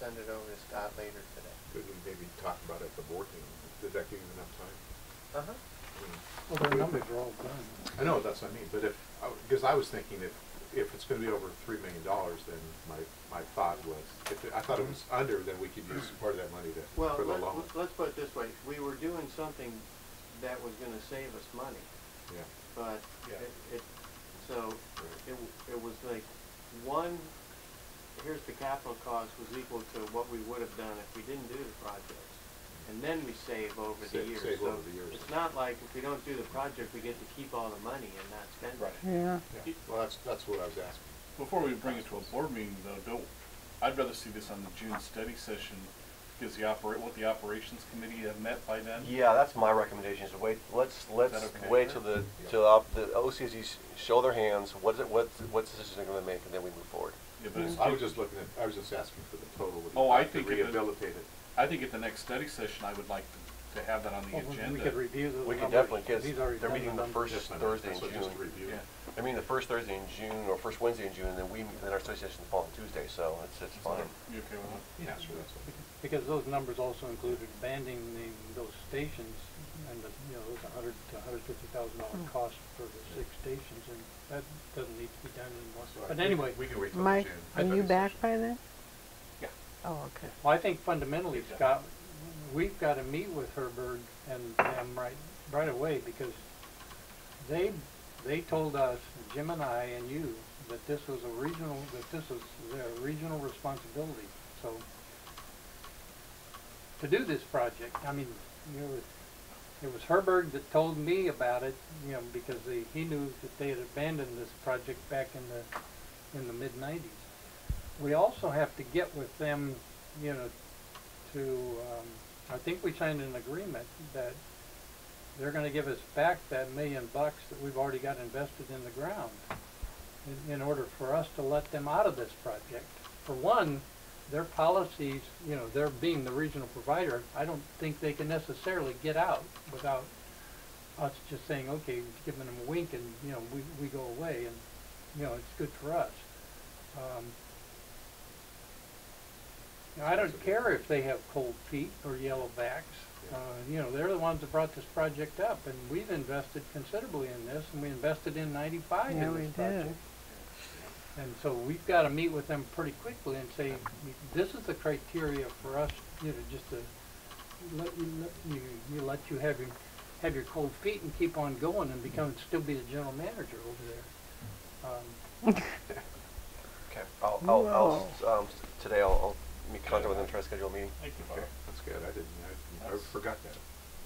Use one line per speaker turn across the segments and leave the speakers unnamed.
send it over to Scott later today.
Could we maybe talk about it at the board meeting? Does that give you enough time?
Uh-huh.
Well, their numbers are all done.
I mean, I know, that's what I mean, but if, because I was thinking if, if it's gonna be over three million dollars, then my, my thought was, if, it- I thought it was under, then we could use part of that money to,
Well,
for the
let-
loan.
let- let's put it this way, we were doing something that was gonna save us money,
Yeah,
but
Yeah.
it, it, so
Right.
it, w- it was like one, here's the capital cost was equal to what we would have done if we didn't do the projects. And then we save over the
Save-
years.
save
So
over the years.
It's not like if we don't do the project, we get to keep all the money and not spend it.
Yeah.
yeah. Well, that's, that's what I was asking.
Before we bring it to a board meeting though, don't, I'd rather see this on the June study session, because the operate, what the operations committee have met by then.
Yeah, that's my recommendation, is to wait, let's, let's
that okay?
wait till the, till op- the OCSDs show their hands, what's it, what, what decisions they're gonna make, and then we move forward.
Yeah, but it's-
I was just looking at, I was just asking for the total. of the-
Oh, I
to
think if it-
Rehabilitate it.
I think at the next study session, I would like to, to have that on the
Well,
agenda.
we could review the.
We can
numbers.
definitely, cause
These already
they're
done
meeting the
numbers.
Yes,
first
I know.
Thursday in
That's what-
June.
Just a review.
Yeah,
I mean, the first Thursday in June, or first Wednesday in June, and then we, then our study session's the following Tuesday, so it's, it's fine.
you okay with
Yeah, sure, that's what.
Because those numbers also included banding the, those stations and the, you know, those a hundred to hundred fifty thousand dollar cost for the six stations and that doesn't need to be done
So
anymore.
I
But
think
anyway,
We can wait till June.
Mike, are you back by then?
Yeah.
Oh, okay.
well, I think fundamentally, Scott, we've gotta meet with Herbert and them right, right away because they, they told us, Jim and I and you, that this was a regional, that this was their regional responsibility, so to do this project, I mean, you know, it was Herberg that told me about it, you know, because they, he knew that they had abandoned this project back in the, in the mid-nineties. We also have to get with them, you know, to, um, I think we signed an agreement that they're gonna give us back that million bucks that we've already got invested in the ground in, in order for us to let them out of this project. For one, their policies, you know, they're being the regional provider, I don't think they can necessarily get out without us just saying, okay, giving them a wink and, you know, we, we go away and, you know, it's good for us. Um, now, I don't care if they have cold feet or yellowbacks, uh, you know, they're the ones that brought this project up and we've invested considerably in this and we invested in ninety-five in
Yeah, we
this project.
did.
And so we've got to meet with them pretty quickly and say, this is the criteria for us, you know, just to let you, let you, you let you have your, have your cold feet and keep on going and become, still be the general manager over there. Um,
Okay, I'll, I'll, I'll, um, today I'll, I'll make contact with them, try to schedule a meeting.
Thank you, Bob.
Okay, that's good. I didn't, I, I
That's-
forgot that.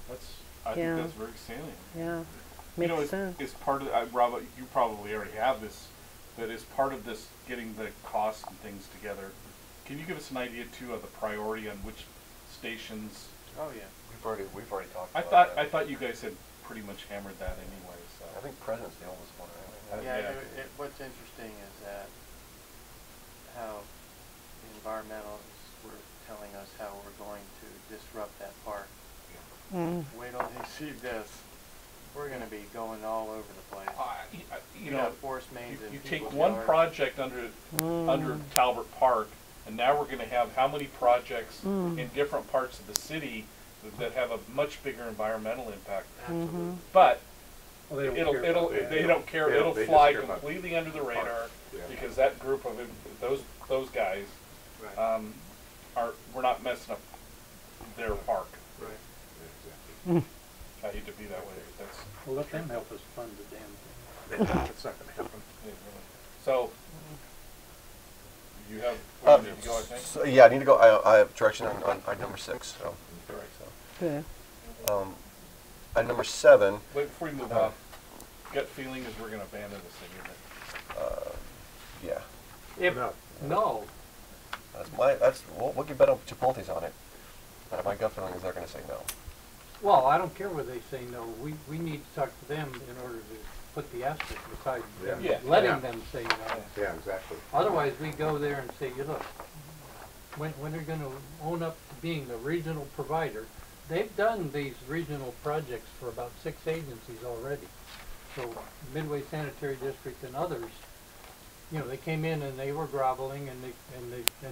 That's, I
Yeah.
think that's very salient.
Yeah,
You know,
makes
it's-
sense.
It's part of, I, Rob, you probably already have this, but as part of this, getting the costs and things together, can you give us an idea too of the priority on which stations?
Oh, yeah.
We've already, we've already talked
I
about
thought,
that.
I thought you guys had pretty much hammered that anyway, so.
I think President's the oldest one, right?
Yeah,
Yeah.
it, it, what's interesting is that how the environmentalists were telling us how we're going to disrupt that park.
Mm.
Wait till they see this. We're gonna be going all over the place.
I- I- Uh, You
We're gonna
know,
have force mains
you-
in
you
people's
take one
yards.
project under, under Talbot Park, and now we're gonna have how many projects in different parts of the city that- that have a much bigger environmental impact?
Absolutely.
But
well, they don't
It'll,
care
it'll,
about that.
they don't care,
They don't-
it'll
they just
fly
care about-
completely under the radar,
Yeah.
because that group of, im- those, those guys,
Right.
um, are, we're not messing up their park.
Right. Yeah,
I hate to be that way, but that's,
Well, let them help us fund the damn thing.
exactly. It's not gonna happen.
it really- so, you have,
Uh,
where you need to go, I think?
So, yeah, I need to go, I, I have direction on, on, on number six, so.
All right.
Good.
Um, at number seven,
Wait, before we move
Uh,
on, gut feeling is we're gonna abandon this thing, isn't it?
yeah,
If,
No.
no,
that's my, that's, we'll, we'll get better Chipotle's on it. But my gut feeling is they're gonna say no.
well, I don't care whether they say no, we, we need to talk to them in order to put the asterisk beside them,
Yeah. Yeah.
Yeah.
letting them say no.
Yeah, exactly.
Otherwise, we go there and say, you look, when, when they're gonna own up to being the regional provider, they've done these regional projects for about six agencies already. So Midway Sanitary District and others, you know, they came in and they were groveling and they, and they, and